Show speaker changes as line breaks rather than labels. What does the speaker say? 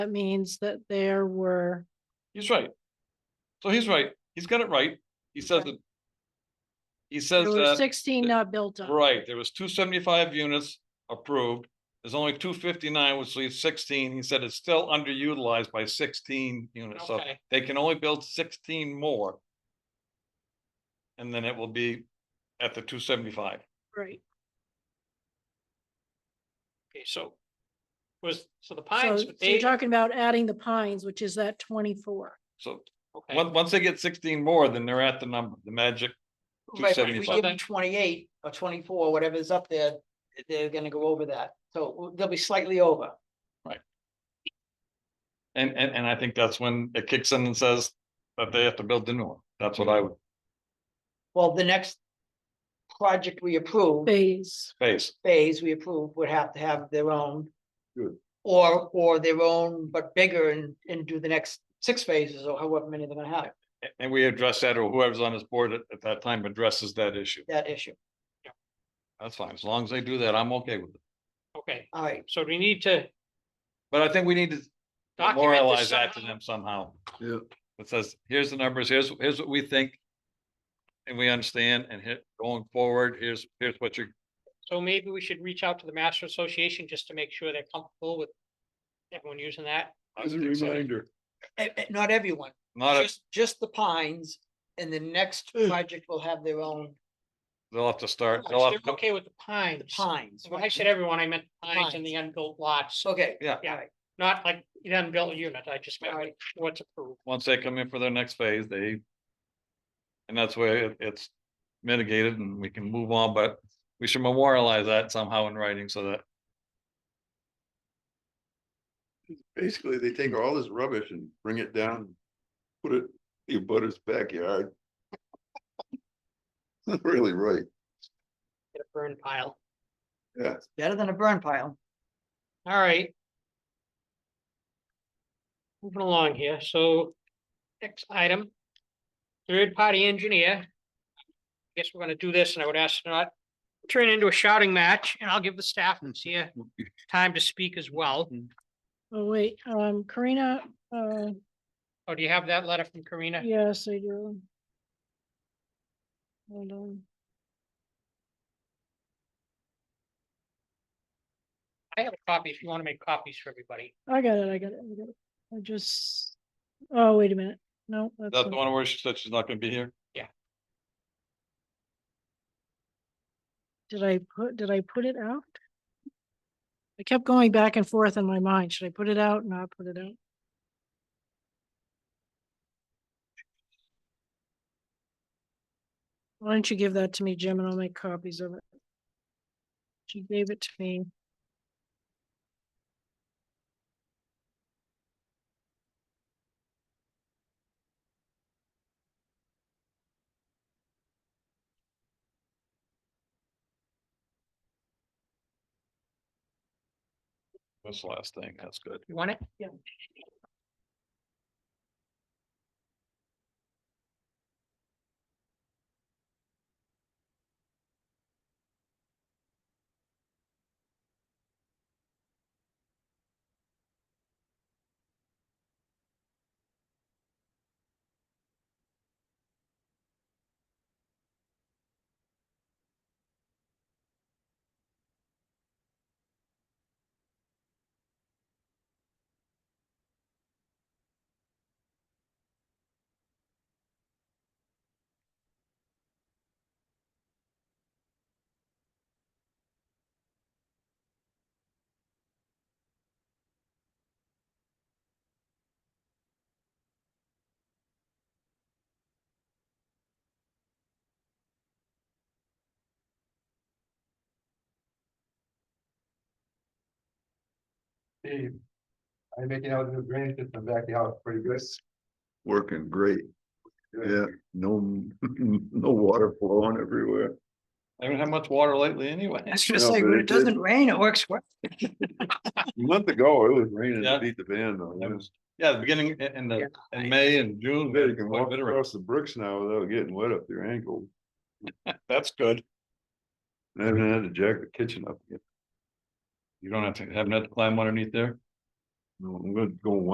That means that there were,
He's right. So he's right. He's got it right. He says
Okay.
that. He says
there were
that,
sixteen
that-
not built up.
right, there was two seventy-five units approved. There's only two fifty-nine, which leaves sixteen. He said it's still underutilized by sixteen units, so
Okay.
they can only build sixteen more. And then it will be at the two seventy-five.
Right,
Okay, so. Was, so the
so
pines,
so
would
you're
they,
talking about adding the pines, which is that twenty-four.
So
okay,
once, once they get sixteen more, then they're at the number, the magic.
Right, but if we
275.
give them twenty-eight or twenty-four, whatever's up there, they're gonna go over that, so they'll be slightly over.
And, and, and I think that's when it kicks in and says that they have to build the new one. That's what I would
Well, the next project we approve,
Phase,
face.
phase we approve, would have to have their own.
Good.
Or, or their own, but bigger and, and do the next six phases or however many they're gonna have,
A- And we address that or whoever's on this board at, at that time addresses that issue.
that issue.
That's fine. As long as they do that, I'm okay with it.
okay,
All right,
so do we need to
But I think we need to
document this
moralize that to
somehow?
them somehow.
Yeah.
It says, here's the numbers, here's, here's what we think. And we understand and hit going forward, here's, here's what you're,
So maybe we should reach out to the Master Association just to make sure they're comfortable with everyone using that.
As a reminder,
eh, eh, not everyone,
not, a-
just, just the pines, and the next project will have their own
they'll have to start,
If
they'll have to.
They're
come-
Oh, okay with the pines.
pines.
When I said everyone, I meant the pines and the unbuilt lots,
Okay.
Yeah.
all right,
not like the unbuilt unit, I just meant
All right.
like what's approved.
once they come in for their next phase, they. And that's where it- it's mitigated and we can move on, but we should memorialize that somehow in writing so that,
basically, they take all this rubbish and bring it down, put it in your butter's backyard. Not Really right,
Get a burn pile.
yeah.
Better than a burn pile.
All right. Moving along here, so next item, third party engineer. Guess we're gonna do this and I would ask not turn into a shouting match and I'll give the staff here time to speak as well.
oh wait, um, Karina, uh,
Oh, do you have that letter from Karina?
yes, I do. Hold on,
I have a copy if you want to make copies for everybody.
I got it, I got it, I got it, I just, oh, wait a minute, no.
that's the
not-
one where she said she's not gonna be here.
Did I put, did I put it out? I kept going back and forth in my mind. Should I put it out? Not put it out? Why don't you give that to me, Jim, and I'll make copies of it? She gave it to me.
This last thing, that's good.
You want it?
Yeah.
Steve, I'm making out the drainage system back the house pretty good.
Working great, yeah, no, no water flowing everywhere.
I haven't had much water lately anyway.
It's just
No,
like,
but
when
it
it doesn't
did.
rain, it works well.
A month ago, it was raining,
Yeah.
it beat the band though.
That was- Yeah, the beginning i- in the, in May and June.
Yeah, you can
quite a
walk
bit of rain.
across the bricks now without getting wet up your ankle,
That's good.
I haven't had to jack the kitchen up yet.
You don't have to, haven't had to climb underneath there.
No, I'm gonna go one